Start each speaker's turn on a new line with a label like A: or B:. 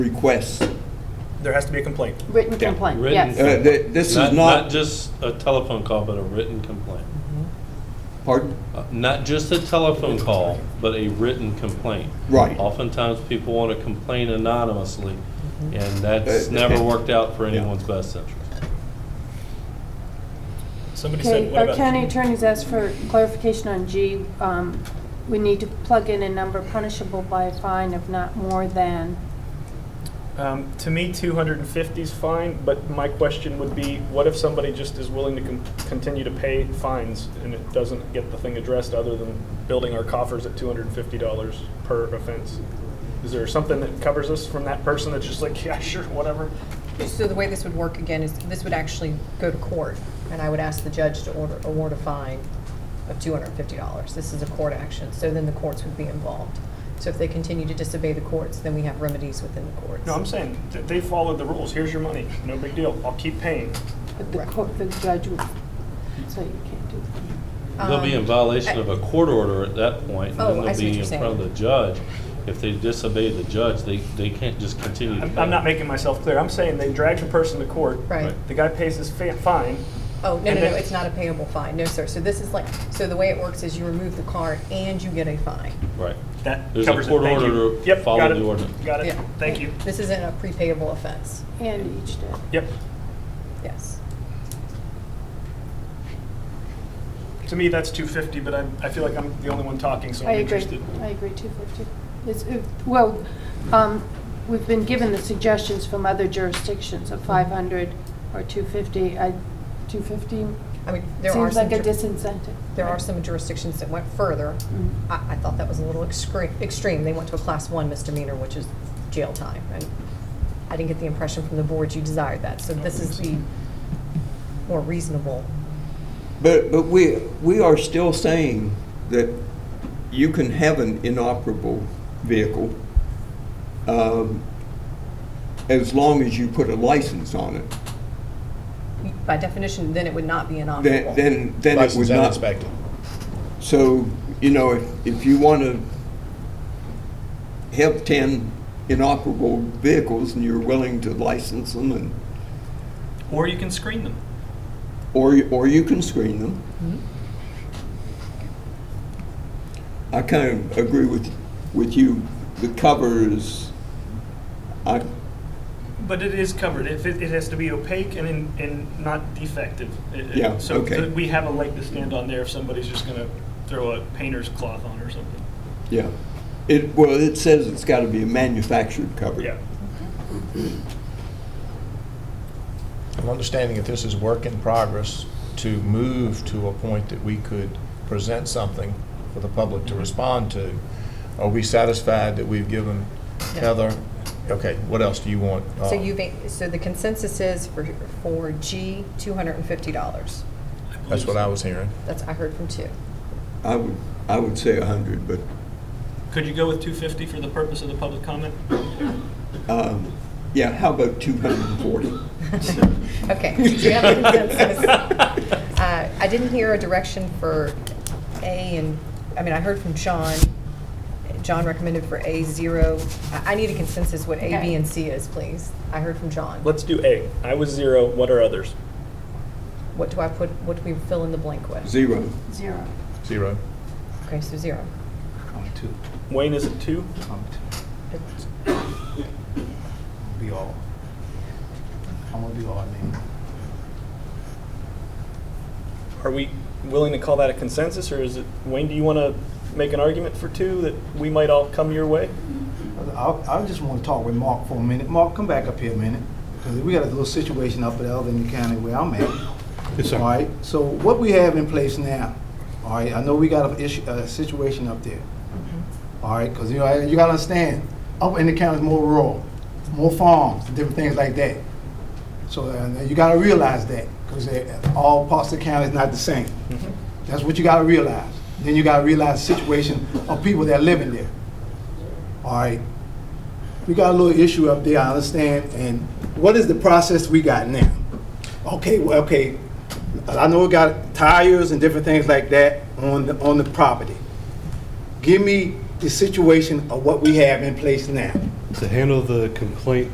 A: requests.
B: There has to be a complaint.
C: Written
A: Yeah.
C: complaint,
D: Written
C: yes.
A: Uh, th- This is not.
D: Not just a telephone call, but a written complaint.
A: Pardon?
D: Uh, Not just a telephone call, but a written complaint.
A: Right.
D: Oftentimes, people want to complain anonymously,
E: Mm-hmm.
D: and that's
A: Uh,
D: never worked out for
A: Yeah.
D: anyone's best interest.
B: Somebody said,
C: Okay,
B: what
C: our
B: about?
C: county attorney's asked for clarification on G. Um, We need to plug in a number punishable by a fine of not more than.
B: Um, to me, 250 is fine, but my question would be, what if somebody just is willing to con- continue to pay fines and it doesn't get the thing addressed other than building our coffers at $250 per offense? Is there something that covers us from that person that's just like, yeah, sure, whatever?
E: So the way this would work again is this would actually go to court, and I would ask the judge to order, award a fine of $250. This is a court action, so then the courts would be involved. So if they continue to disobey the courts, then we have remedies within the courts.
B: No, I'm saying that they followed the rules. Here's your money. No big deal. I'll keep paying.
C: But the
E: Right.
C: court, the judge would say you can't do that.
D: They'll be in
E: Um,
D: violation
E: I-
D: of a court order at that point, and
E: Oh,
D: then
E: I
D: they'll
E: see what
D: be in
E: you're
D: front of the
E: saying.
D: judge. If they disobey the judge, they, they can't just continue to
B: I'm,
D: pay.
B: I'm not making myself clear. I'm saying they dragged a person to court.
E: Right.
B: The guy pays his fa- fine.
E: Oh, no,
B: And
E: no,
B: then-
E: no, it's not a payable fine, no, sir. So this is like, so the way it works is you remove the card and you get a fine.
D: Right.
B: That
D: There's a
B: covers
D: court
B: it. Thank
D: order
B: you.
D: to
B: Yep,
D: follow
B: got it.
D: the ordinance.
B: Got it.
E: Yeah.
B: Thank you.
E: This isn't a prepayable offense,
C: And each day.
B: Yep.
E: yes.
B: To me, that's 250, but I, I feel like I'm the only one talking, so
C: I
B: I'm
C: agree,
B: interested.
C: I agree, 250. It's, uh, well, um, we've been given the suggestions from other jurisdictions of 500 or 250. I, 250
E: I mean, there are
C: seems
E: some.
C: like a
E: jur-
C: disincentive.
E: There are some jurisdictions that went further.
C: Mhm.
E: I, I thought that was a little extreme, extreme. They went to a class one misdemeanor, which is jail time. And I didn't get the impression from the board you desired that. So this is the more reasonable.
A: But, but we, we are still saying that you can have an inoperable vehicle um, as long as you put a license on it.
E: By definition, then it would not be
A: Then,
E: inoperable.
A: then then it would
F: License and
A: not.
F: inspected.
A: So, you know, if, if you want to have 10 inoperable vehicles and you're willing to license them and,
B: Or you can screen them.
A: or, or you can screen them. I kind of agree with, with you. The cover is, I,
B: But it is covered. If it, it has to be opaque and, in- and not defective. It- it-
A: Yeah,
B: so
A: okay.
B: th- we have a leg to stand on there if somebody's just going to throw a painter's cloth on or something.
A: yeah. It, well, it says it's got to be a manufactured cover.
B: Yeah.
F: I'm understanding that this is work in progress to move to a point that we could present something for the public to respond to. Are we satisfied that we've given Heather? Okay, what else do you want? uh,
E: So you've, a- so the consensus is for, for G, $250.
F: That's what I was hearing.
E: That's, I heard from two.
A: I would, I would say 100, but
B: Could you go with 250 for the purpose of the public comment?
A: um, yeah, how about 240?
E: Okay, do you have a consensus? Uh, I didn't hear a direction for A and, I mean, I heard from John. John recommended for A zero. I I need a consensus what A, B, and C is, please. I heard from John.
B: Let's do A. I was zero. What are others?
E: What do I put, what do we fill in the blank with?
A: Zero.
C: Zero.
F: Zero.
E: Okay, so zero.
G: I'm two.
B: Wayne is a two.
G: I'm two. Be all. I'm gonna be all name.
B: Are we willing to call that a consensus, or is it, Wayne, do you want to make an argument for two that we might all come your way?
G: I, I just want to talk with Mark for a minute. Mark, come back up here a minute, because we got a little situation up at Alvin County where I'm at. All right, so what we have in place now, all right, I know we got a issue, a situation up there. All right, because you know, you gotta understand, up in the county is more rural, more farms, different things like that. So uh, you gotta realize that, because all parts of the county is not the same. That's what you gotta realize. Then you gotta realize the situation of people that are living there. All right, we got a little issue up there, I understand, and what is the process we got now? Okay, well, okay, I know it got tires and different things like that on the, on the property. Give me the situation of what we have in place now.
D: to handle the complaint